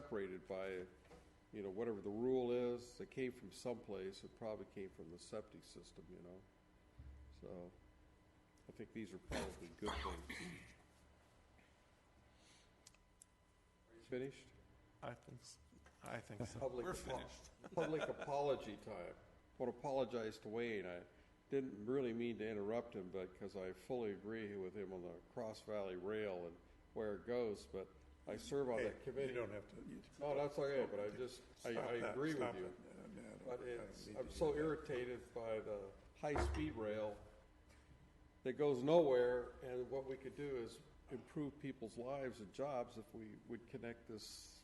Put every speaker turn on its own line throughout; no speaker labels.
separated by, you know, whatever the rule is. They came from someplace. It probably came from the septic system, you know? So I think these are probably good things. Finished?
I think, s- I think so.
Public
We're
apo-
finished.
Public apology time. I want to apologize to Wayne. I didn't really mean to interrupt him, but because I fully agree with him on the Cross Valley Rail and where it goes, but I serve on
Hey,
that committee.
You don't have to. you-
No, Oh, that's okay, but I just, I,
stop
I
that,
agree with
stop
you.
it. I mean, I don't- I
But
don't
it's,
need to
I'm
hear
Uh,
so
that.
irritated by the high-speed rail that goes nowhere, and what we could do is improve people's lives and jobs if we would connect this.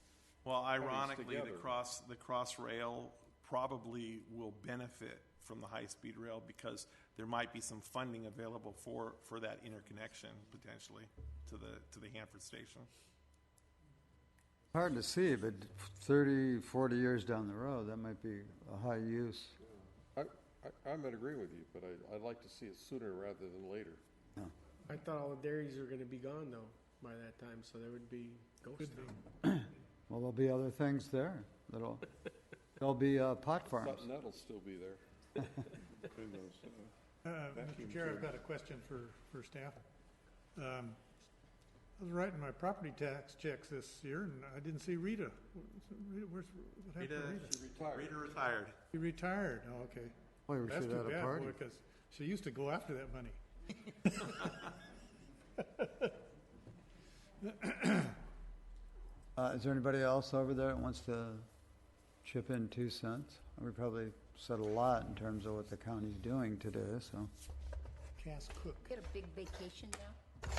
Well, ironically, the
together.
cross, the cross rail probably will benefit from the high-speed rail because there might be some funding available for, for that interconnection potentially to the, to the Hanford station.
Hard to see, but 30, 40 years down the road, that might be a high use.
I, I, I'm in agree with you, but I, I'd like to see it sooner rather than later.
I thought all the dairies were going to be gone though by that time, so there would be ghost town.
Well, there'll be other things there. That'll, there'll be uh, pot
Sutton,
farms.
that'll still be there.
Who knows, uh,
Uh, Mr. Chair, I've got a question for, for staff. Um, I was writing my property tax checks this year, and I didn't see Rita. Rita, Where's, what happened to Rita?
Rita retired.
She retired, oh, okay.
Boy, we
That's
should
too
have had a
bad,
party.
because she used to go after that money.
Uh, Is there anybody else over there that wants to chip in two cents? We probably said a lot in terms of what the county's doing today, so.
Cass Cook.
Get a big vacation now?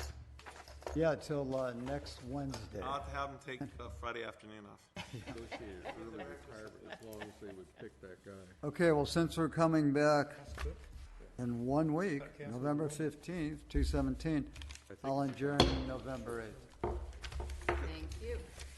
Yeah, till uh, next Wednesday.
I'll have to have them take uh, Friday afternoon off.
Negotiated early retirement as long as they would pick that guy.
Okay, well, since we're coming back
Cass Cook.
in one week,
cancel
November 15th, 217, I'll adjourn November 8th.
Thank you.